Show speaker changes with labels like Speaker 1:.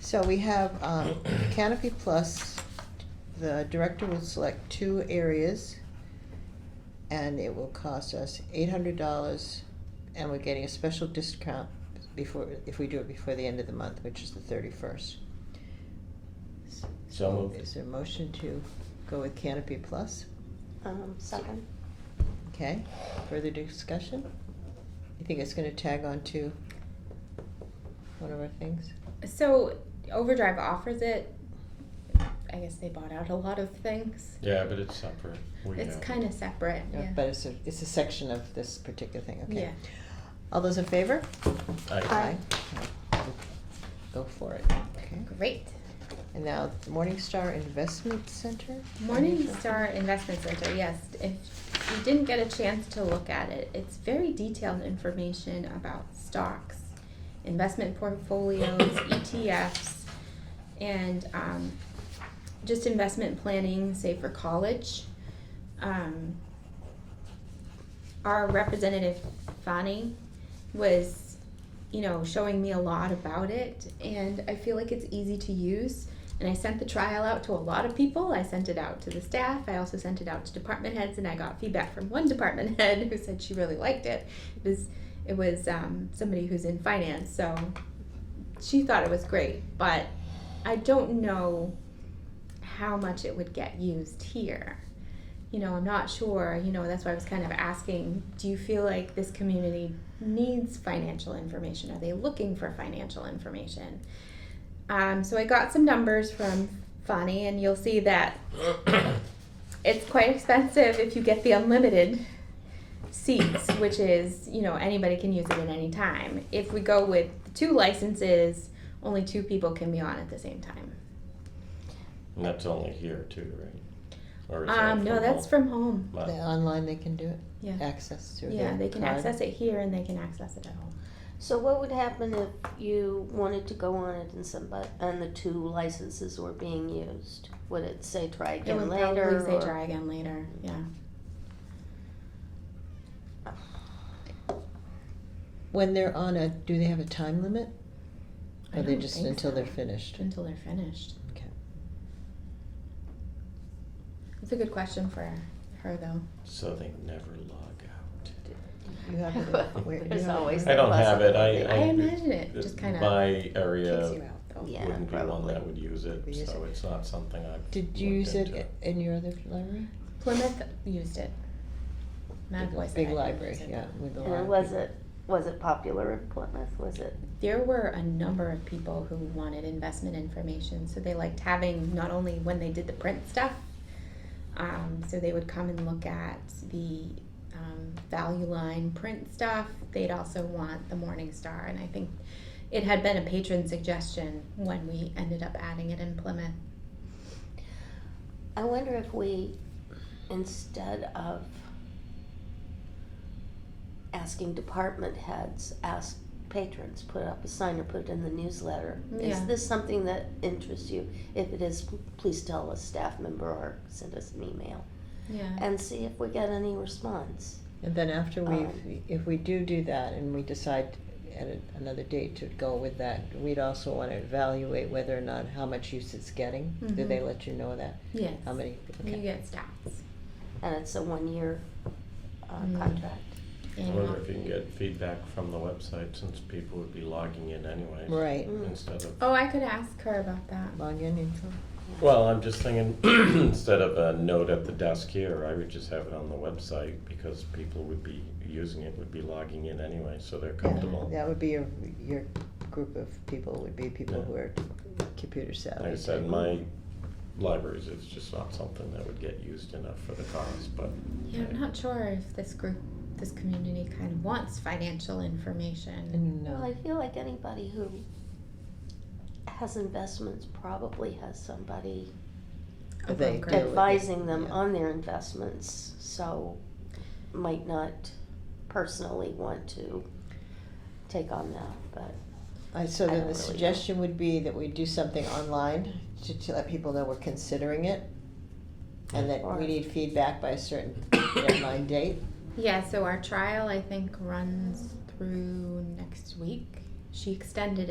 Speaker 1: So we have um, Canopy Plus, the director will select two areas, and it will cost us eight hundred dollars, and we're getting a special discount before, if we do it before the end of the month, which is the thirty-first.
Speaker 2: So moved.
Speaker 1: Is there a motion to go with Canopy Plus?
Speaker 3: Um, second.
Speaker 1: Okay, further discussion? You think it's gonna tag on to one of our things?
Speaker 4: So Overdrive offers it. I guess they bought out a lot of things.
Speaker 2: Yeah, but it's separate. We
Speaker 4: it's
Speaker 2: have-
Speaker 4: kind of separate.
Speaker 1: No,
Speaker 4: Yeah.
Speaker 1: But it's a, it's a section of this particular thing, okay?
Speaker 4: Yeah.
Speaker 1: All those in favor?
Speaker 2: I-
Speaker 3: Aye.
Speaker 1: Aye. Go for it, okay?
Speaker 4: Great.
Speaker 1: And now Morningstar Investment Center?
Speaker 4: Morningstar Investment Center. Yes. If you didn't get a chance to look at it, it's very detailed information about stocks, investment portfolios, ETFs, and um, just investment planning, say for college. Um, our representative Fani was, you know, showing me a lot about it, and I feel like it's easy to use. And I sent the trial out to a lot of people. I sent it out to the staff. I also sent it out to department heads, and I got feedback from one department head who said she really liked it. It was, it was um, somebody who's in finance, so she thought it was great. But I don't know how much it would get used here. You know, I'm not sure. You know, that's why I was kind of asking do you feel like this community needs financial information? Are they looking for financial information? Um, so I got some numbers from Fani, and you'll see that it's quite expensive if you get the unlimited seats, which is, you know, anybody can use it at any time. If we go with two licenses, only two people can be on at the same time.
Speaker 2: And that's only here too, right? Or is that
Speaker 4: Um, no,
Speaker 2: from
Speaker 4: that's
Speaker 2: all-
Speaker 4: from home.
Speaker 1: The
Speaker 2: Wow.
Speaker 1: Online they can do it,
Speaker 4: Yeah.
Speaker 1: access through their
Speaker 4: Yeah, they can
Speaker 1: card.
Speaker 4: access it here and they can access it at home.
Speaker 3: So what would happen if you wanted to go on it and somebody, and the two licenses were being used? Would it say try
Speaker 4: It
Speaker 3: again
Speaker 4: would
Speaker 3: later?
Speaker 4: probably say
Speaker 3: or-
Speaker 4: try again later, yeah.
Speaker 1: When they're on a, do they have a time limit?
Speaker 4: I
Speaker 1: Or they
Speaker 4: don't
Speaker 1: just
Speaker 4: think
Speaker 1: until
Speaker 4: so.
Speaker 1: they're finished?
Speaker 4: Until they're finished.
Speaker 1: Okay.
Speaker 4: It's a good question for her though.
Speaker 2: So they never log out.
Speaker 1: You have it, where, you
Speaker 3: There's
Speaker 1: have it?
Speaker 3: always
Speaker 2: I don't have it, I-
Speaker 3: possibility.
Speaker 4: I imagine it just kind of
Speaker 2: My
Speaker 4: kicks you
Speaker 2: area
Speaker 4: out though.
Speaker 3: Yeah,
Speaker 2: wouldn't be one
Speaker 3: probably.
Speaker 2: that would use
Speaker 1: We
Speaker 2: it,
Speaker 1: use
Speaker 2: so it's not something I've.
Speaker 1: Did you
Speaker 2: looked
Speaker 1: use it
Speaker 2: into.
Speaker 1: i- in your other library?
Speaker 4: Plymouth used it. Mad
Speaker 1: Big-
Speaker 4: Voice.
Speaker 1: Big
Speaker 4: had it,
Speaker 1: library,
Speaker 4: used it.
Speaker 1: yeah, with a lot
Speaker 3: And
Speaker 1: of
Speaker 3: was
Speaker 1: people.
Speaker 3: it, was it popular in Plymouth? Was it?
Speaker 4: There were a number of people who wanted investment information, so they liked having not only when they did the print stuff, um, so they would come and look at the um, value line print stuff. They'd also want the Morning Star, and I think it had been a patron suggestion when we ended up adding it in Plymouth.
Speaker 3: I wonder if we, instead of asking department heads, ask patrons, put up a sign or put it in the newsletter. Is
Speaker 4: Yeah.
Speaker 3: this something that interests you? If it is, please tell a staff member or send us an email
Speaker 4: Yeah.
Speaker 3: and see if we get any response.
Speaker 1: And then after we,
Speaker 3: Um,
Speaker 1: if we do do that and we decide at a- another date to go with that, we'd also want to evaluate whether or not how much use it's getting. Do they
Speaker 3: Mm-hmm.
Speaker 4: Mhm.
Speaker 1: let you know that?
Speaker 4: Yes.
Speaker 1: How many?
Speaker 4: You
Speaker 1: Okay.
Speaker 4: get stats.
Speaker 3: And it's a one-year uh,
Speaker 4: Mm.
Speaker 3: contract.
Speaker 2: I
Speaker 4: And
Speaker 2: wonder if you can get feedback from the website since people would be logging in anyway.
Speaker 1: Right.
Speaker 3: Mm.
Speaker 2: Instead of,
Speaker 4: Oh, I could ask her about that.
Speaker 1: Login info.
Speaker 2: well, I'm just thinking, instead of a note at the desk here, I would just have it on the website because people would be using it, would be logging in anyway, so they're comfortable.
Speaker 1: That would be your, your group of people, would be people
Speaker 2: Yeah.
Speaker 1: who are computer savvy.
Speaker 2: Like I
Speaker 1: type.
Speaker 2: said, my libraries is just not something that would get used enough for the cost, but
Speaker 4: Yeah, I'm not sure if this group, this community kind of wants financial information.
Speaker 3: Well,
Speaker 1: No,
Speaker 3: I feel like anybody who has investments probably has somebody
Speaker 4: A
Speaker 1: They
Speaker 4: broker.
Speaker 1: do. it.
Speaker 3: advising them
Speaker 1: Yeah.
Speaker 3: on their investments, so might not personally want to take on that, but
Speaker 1: I, so
Speaker 3: I
Speaker 1: then
Speaker 3: don't
Speaker 1: the
Speaker 3: really know.
Speaker 1: suggestion would be that we do something online to, to let people know we're considering it. And that
Speaker 3: Or-
Speaker 1: we need feedback by a certain deadline date.
Speaker 4: Yeah, so our trial, I think, runs through next week. She extended